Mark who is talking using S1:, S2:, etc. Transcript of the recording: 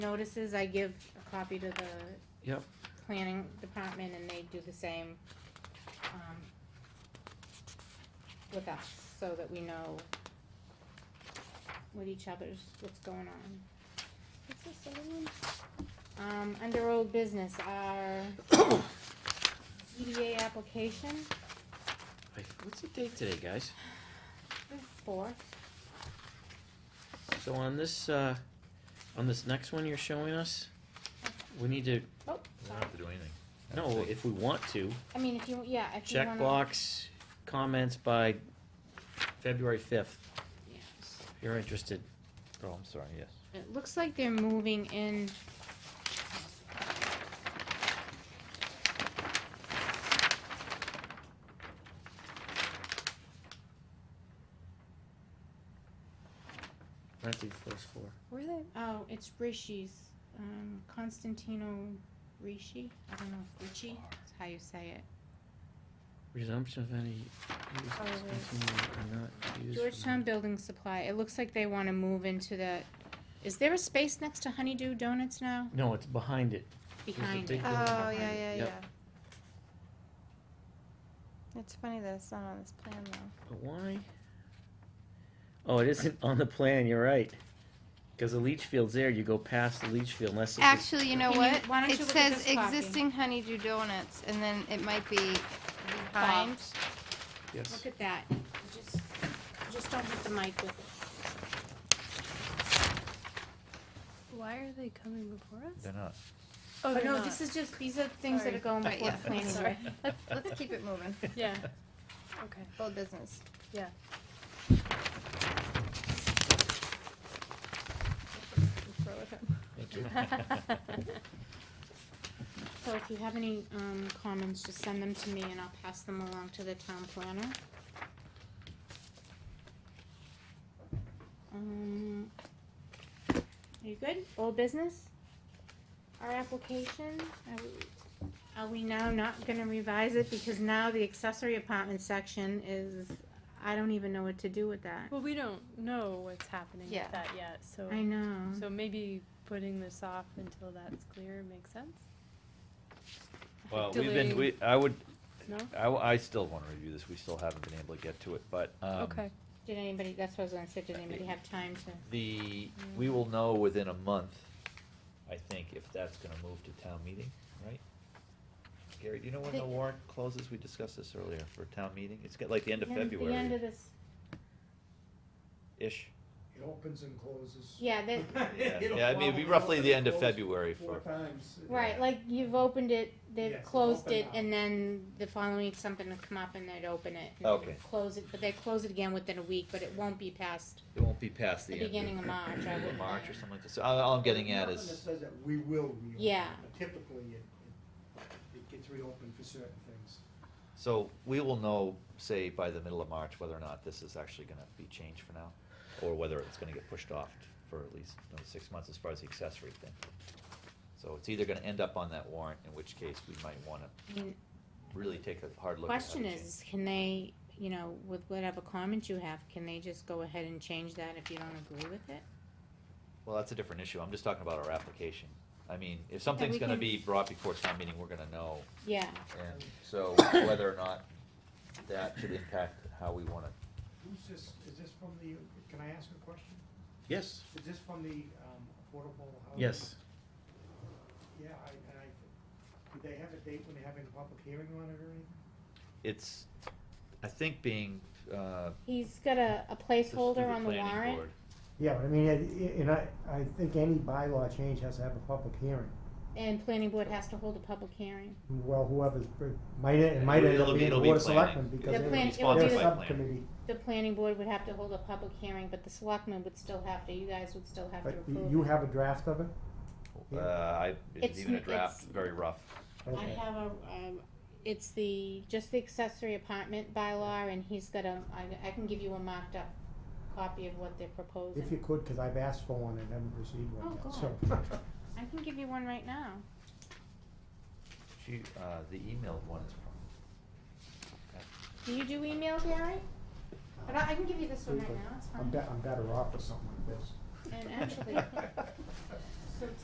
S1: notices, I give a copy to the
S2: Yep.
S1: planning department and they do the same, um, with us, so that we know with each other's, what's going on. What's this other one? Um, under old business, our CDA application,
S2: I- What's the date today, guys?
S1: four,
S2: So on this, uh, on this next one you're showing us, we need to,
S1: oh,
S3: We don't
S1: sorry,
S3: have to do anything.
S2: no, if we want to,
S1: I mean, if you, yeah, if you wanna.
S2: check blocks, comments by February fifth,
S1: Yes.
S2: if you're interested.
S3: Oh, I'm sorry, yes.
S1: It looks like they're moving in.
S2: Not the first floor.
S1: Where are they? Oh, it's Rishi's. Um, Constantino Rishi. I don't know if Rishi is how you say it.
S2: Resumption of any use
S1: Oh, wait.
S2: discontinued or not used.
S1: Georgetown Building Supply. It looks like they want to move into the. Is there a space next to Honeydew Donuts now?
S2: No, it's behind it.
S1: Behind
S2: big
S1: it.
S2: building
S4: Oh,
S2: behind
S4: yeah,
S2: it.
S4: yeah,
S2: Yep.
S4: yeah. It's funny that it's not on this plan though.
S2: But why? Oh, it isn't on the plan, you're right. Cause the leach field's there, you go past the leach field unless it's. a-
S4: Actually, you know
S1: Can you-
S4: what?
S1: why don't
S4: It
S1: you look at
S4: says
S1: this copy?
S4: existing honeydew donuts and then it might be behind.
S2: Yes.
S1: Look at that. You Just, you just don't hit the mic with it.
S5: Why are they coming before us?
S3: They're not.
S1: But
S5: Oh, they're
S1: no,
S5: not.
S1: this is just these are things that
S5: Sorry.
S1: are going
S4: Right,
S1: before
S4: yeah.
S1: planning.
S5: Sorry.
S4: Let's, let's keep it moving.
S5: Yeah. Okay.
S4: Old business.
S5: Yeah.
S4: Throw it up.
S2: Thank you.
S1: So if you have any um, comments, just send them to me and I'll pass them along to the town planner. Um, Are you good? Old business? Our application, are we- are we now not gonna revise it because now the accessory apartment section is, I don't even know what to do with that.
S5: Well, we don't know what's happening
S4: Yeah.
S5: with that yet, so
S1: I know.
S5: so maybe putting this off until that's clear makes sense.
S3: Well,
S5: we've
S3: we've
S5: been-
S3: been,
S5: Delay.
S3: we, I would,
S5: No.
S3: I, w- I still wanna review this, we still haven't been able to get to it, but, um,
S5: okay.
S1: Did anybody, that's what I was gonna say, did anybody have time to?
S3: the, we will know within a month, I think, if that's gonna move to town meeting, right? Gary, do you know when the
S4: Think-
S3: warrant closes? We discussed this earlier for town meeting. It's got like the end of
S1: The end of
S3: February-ish.
S1: this,
S6: It opens and closes.
S1: yeah, that,
S3: Yeah,
S6: It'll
S3: yeah, I mean, it'd be
S6: probably
S3: roughly the
S6: open
S3: end
S6: and
S3: of
S6: close
S3: February
S6: Four
S3: for,
S6: times.
S1: Right, like you've opened it, they've
S6: Yes, it's
S1: closed
S6: open
S1: it,
S6: now.
S1: and then the following week something will come up and they'd open it. and
S3: Okay.
S1: Close it, but they close it again within a week, but it won't be past
S3: it won't be past the
S1: the
S3: end of.
S1: beginning of March, I
S3: end of
S1: would
S3: March or
S1: think.
S3: something like this. So uh, all, all I'm getting at
S6: Nothing
S3: is.
S6: that says that we will reopen.
S1: Yeah.
S6: but Typically, it, it- it gets reopened for certain things.
S3: So we will know, say, by the middle of March, whether or not this is actually gonna be changed for now, or whether it's gonna get pushed off for at least another six months as far as the accessory thing. So it's either gonna end up on that warrant, in which case we might wanna
S1: I mean,
S3: really take a hard look at how to
S1: question
S3: change
S1: is, can they, you know, with whatever comment you have, can they just go ahead and change that if you don't agree with it?
S3: Well, that's a different issue, I'm just talking about our application. I mean, if something's
S1: we
S3: gonna
S1: can-
S3: be brought before town meeting, we're gonna know,
S1: Yeah,
S3: and so whether or not that should impact how we wanna.
S6: Who's this, is this from the, can I ask a question?
S2: Yes.
S6: Is this from the, um, affordable housing?
S2: Yes.
S6: Yeah, I, and I, do they have a date when they're having a public hearing on it or anything?
S3: It's, I think being, uh.
S1: he's got a, a
S3: this through
S1: placeholder on the
S3: planning
S1: warrant.
S3: board.
S6: Yeah, but I mean, and I, I think any bylaw change has to have a public hearing.
S1: And planning board has to hold a public hearing.
S6: Well, whoever's, might, it
S3: might end up It'll be- being the it'll be Board of planning. Selectmen
S1: The
S6: because
S1: they're- plan-
S6: Their
S1: Sponsored by
S6: subcommittee,
S1: The planning board would have to hold a public hearing, but the selectmen would still have to, you guys would still have to
S6: but
S1: approve.
S6: you
S1: it.
S6: you have a draft of it?
S3: Uh, I, it's
S1: It's
S3: even a
S1: n-
S3: draft,
S1: it's-
S3: very rough.
S1: I
S6: Okay.
S1: have a, um, it's the, just the accessory apartment bylaw, and he's got a, I, I can give you a marked up copy of what they're
S6: If you
S1: proposing.
S6: could, because I've asked for one and haven't received one
S1: Oh,
S6: yet, so.
S1: I can give you one right now.
S3: She, uh, the emailed one is from.
S1: Do you do email, Gary? But I, I can give you this one right now, it's
S6: uh, I'm be-
S1: fine.
S6: I'm better off with something like this.
S1: And actually,